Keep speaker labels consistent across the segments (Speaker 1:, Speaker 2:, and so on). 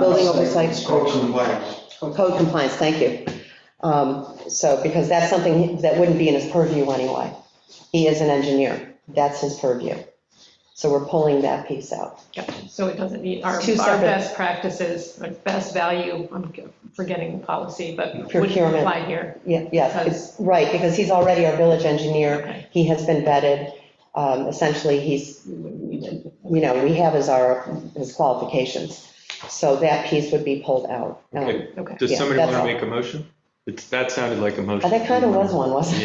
Speaker 1: Building oversight.
Speaker 2: Code compliance.
Speaker 1: Code compliance, thank you. Um, So, because that's something that wouldn't be in his purview anyway. He is an engineer, that's his purview. So we're pulling that piece out.
Speaker 3: Yep, so it doesn't meet our,
Speaker 1: It's two
Speaker 3: our
Speaker 1: separate-
Speaker 3: best practices, our best value, I'm forgetting the policy, but wouldn't
Speaker 1: Procurement.
Speaker 3: apply here.
Speaker 1: Ye- Yes, it's, right, because he's already our village engineer,
Speaker 3: Okay.
Speaker 1: he has been vetted. Um, Essentially, he's, you know, we have his, our, his qualifications. So that piece would be pulled out. Um,
Speaker 4: Okay.
Speaker 3: Okay,
Speaker 4: Does
Speaker 1: Yeah,
Speaker 4: somebody
Speaker 1: that's
Speaker 4: want to
Speaker 1: all.
Speaker 4: make a motion? It's, that sounded like a motion.
Speaker 1: That kind of was one, wasn't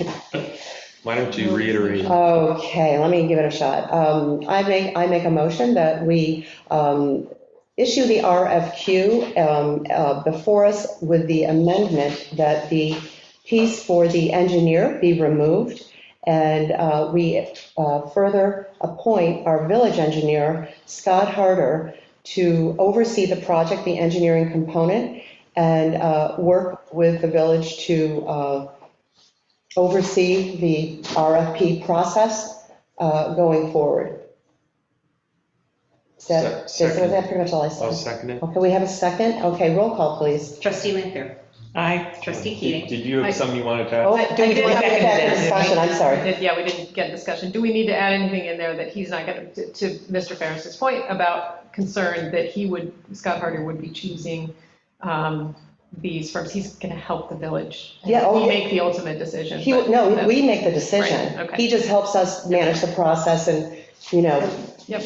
Speaker 1: it?
Speaker 4: Why don't you reiterate?
Speaker 1: Okay, let me give it a shot. Um, I make, I make a motion that we um, issue the RFQ um, uh, before us with the amendment that the piece for the engineer be removed, and uh, we uh, further appoint our village engineer, Scott Harder, to oversee the project, the engineering component, and uh, work with the village to uh, oversee the RFP process uh, going forward. Is that, is
Speaker 4: Se- second.
Speaker 1: that pretty much all I
Speaker 4: I'll
Speaker 1: said?
Speaker 4: second it.
Speaker 1: Okay, we have a second? Okay, roll call, please.
Speaker 5: Trustee Lanfair. Aye. Trustee
Speaker 4: Did
Speaker 5: Keating.
Speaker 4: did you
Speaker 3: I-
Speaker 4: have something you wanted to
Speaker 1: Oh,
Speaker 4: ask?
Speaker 1: do we
Speaker 3: did
Speaker 1: want to
Speaker 3: second
Speaker 1: get back to
Speaker 3: it.
Speaker 1: discussion? I'm sorry.
Speaker 3: We did- Yeah, we didn't get discussion. Do we need to add anything in there that he's not going to, to Mr. Ferris's point about concern that he would, Scott Harder would be choosing um, these firms? He's going to help the village. and
Speaker 1: Yeah, oh,
Speaker 3: He
Speaker 1: yeah.
Speaker 3: make the ultimate decision.
Speaker 1: He,
Speaker 3: but
Speaker 1: no,
Speaker 3: that's-
Speaker 1: we make the decision.
Speaker 3: Right, okay.
Speaker 1: He just helps us manage the process and, you know,
Speaker 3: Yep,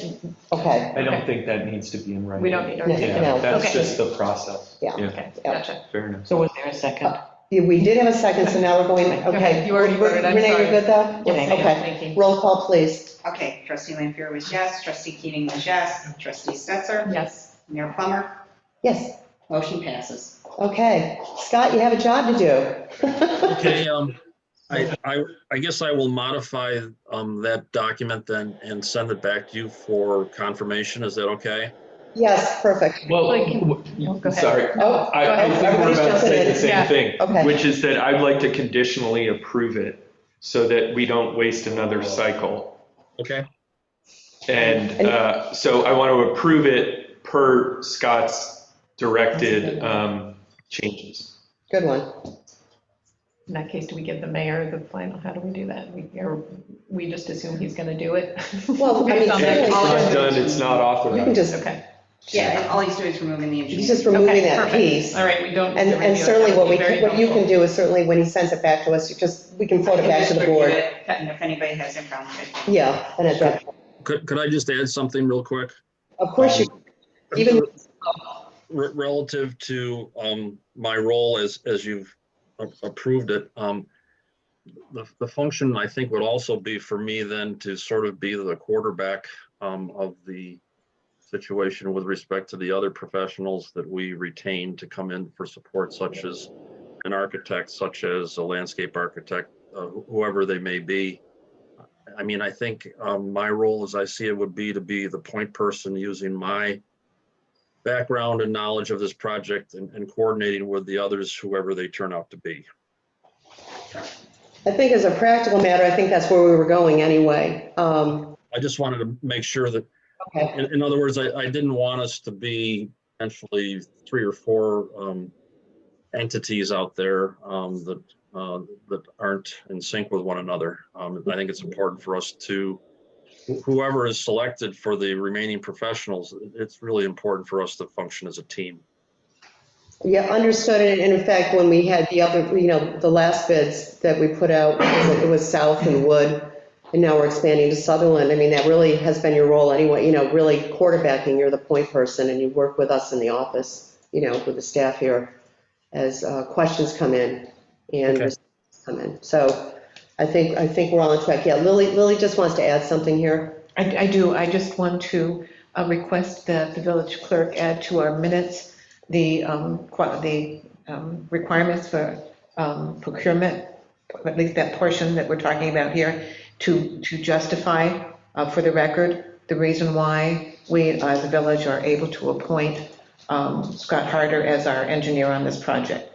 Speaker 1: okay.
Speaker 4: I don't think that needs to be in writing.
Speaker 3: we don't need to.
Speaker 1: No,
Speaker 4: Yeah,
Speaker 1: no.
Speaker 4: that's
Speaker 3: Okay.
Speaker 4: just the process.
Speaker 1: Yeah.
Speaker 3: Okay, gotcha.
Speaker 4: Fair enough.
Speaker 5: So was there a second?
Speaker 1: Yeah, We did have a second, so now we're going, okay.
Speaker 3: Okay, you already voted, I'm
Speaker 1: Renee,
Speaker 3: sorry.
Speaker 1: you're good though?
Speaker 3: Yes, ma'am.
Speaker 1: Okay,
Speaker 3: Thank you.
Speaker 1: roll call, please.
Speaker 5: Okay, trustee Lanfair was yes, trustee Keating was yes, trustee Stetser,
Speaker 3: Yes,
Speaker 5: Mayor Plummer,
Speaker 1: Yes,
Speaker 5: motion passes.
Speaker 1: okay. Scott, you have a job to do.
Speaker 6: Okay, um, I, I, I guess I will modify, um, that document then and send it back to you for confirmation. Is that okay?
Speaker 1: Yes, perfect.
Speaker 4: Well,
Speaker 3: Like-
Speaker 4: w-
Speaker 3: go ahead.
Speaker 4: sorry,
Speaker 1: Oh,
Speaker 4: I, I
Speaker 1: ahead.
Speaker 4: think we're
Speaker 1: Everybody's
Speaker 4: about to say
Speaker 1: jumping
Speaker 4: the
Speaker 1: in.
Speaker 4: same
Speaker 3: Yeah.
Speaker 1: Okay.
Speaker 4: thing, which is that I'd like to conditionally approve it so that we don't waste another cycle.
Speaker 6: Okay,
Speaker 4: And uh, so I want to approve it per Scott's directed um, changes.
Speaker 1: Good one.
Speaker 3: in that case, do we give the mayor the final, how do we do that? We, or we just assume he's going to do it?
Speaker 1: Well, I mean,
Speaker 3: Based on
Speaker 4: And
Speaker 3: that.
Speaker 4: if it's not
Speaker 1: Clearly.
Speaker 4: done, it's not
Speaker 1: You can
Speaker 4: authorized.
Speaker 1: just,
Speaker 3: Okay,
Speaker 5: Yeah, and all he's doing is removing the
Speaker 1: he's
Speaker 5: engineer.
Speaker 1: just removing
Speaker 3: Okay,
Speaker 1: that
Speaker 3: perfect.
Speaker 1: piece.
Speaker 3: all right, we don't.
Speaker 1: And,
Speaker 3: review
Speaker 1: and
Speaker 3: it.
Speaker 1: certainly
Speaker 3: That
Speaker 1: what we,
Speaker 3: would be very
Speaker 1: what you can
Speaker 3: helpful.
Speaker 1: do is certainly when he sends it back to us, you just, we can float it back to the board.
Speaker 5: And if anybody has any problem with it.
Speaker 1: Yeah, and at that,
Speaker 6: could, could I just add something real quick?
Speaker 1: of course you, even,
Speaker 6: Re- Relative to, um, my role as, as you've a- approved it, um, the, the function I think would also be for me then to sort of be the quarterback, um, of the situation with respect to the other professionals that we retain to come in for support such as an architect, such as a landscape architect, uh, wh- whoever they may be. I mean, I think um, my role, as I see it, would be to be the point person using my background and knowledge of this project and, and coordinating with the others, whoever they turn out to be.
Speaker 1: I think as a practical matter, I think that's where we were going anyway. Um,
Speaker 6: I just wanted to make sure that,
Speaker 1: Okay.
Speaker 6: in, in other words, I, I didn't want us to be potentially three or four um, entities out there um, that, uh, that aren't in sync with one another. Um, I think it's important for us to, wh- whoever is selected for the remaining professionals, it's really important for us to function as a team.
Speaker 1: Yeah, understood, and in fact, when we had the other, you know, the last bids that we put out, it was South and Wood, and now we're expanding to Sutherland, I mean, that really has been your role anyway, you know, really quarterbacking, you're the point person, and you work with us in the office, you know, with the staff here, as uh, questions come in and
Speaker 6: Okay.
Speaker 1: responses come in, so I think, I think we're all on track, yeah, Lily, Lily just wants to add something here.
Speaker 7: I, I do, I just want to uh, request that the village clerk add to our minutes the, um, qua- the um, requirements for um, procurement, at least that portion that we're talking about here, to, to justify uh, for the record the reason why we, uh, the village, are able to appoint um, Scott Harder as our engineer on this project.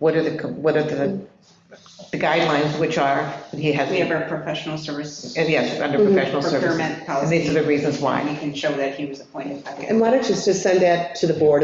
Speaker 7: What are the, co- what are the
Speaker 3: the guidelines, which are, he has,
Speaker 5: We have our professional service
Speaker 3: yes, under
Speaker 1: Mhm.
Speaker 3: professional services.
Speaker 5: procurement
Speaker 3: And
Speaker 5: policy.
Speaker 3: these are the reasons why.
Speaker 5: And we can show that he was appointed by the.
Speaker 1: And why don't you just send that to the board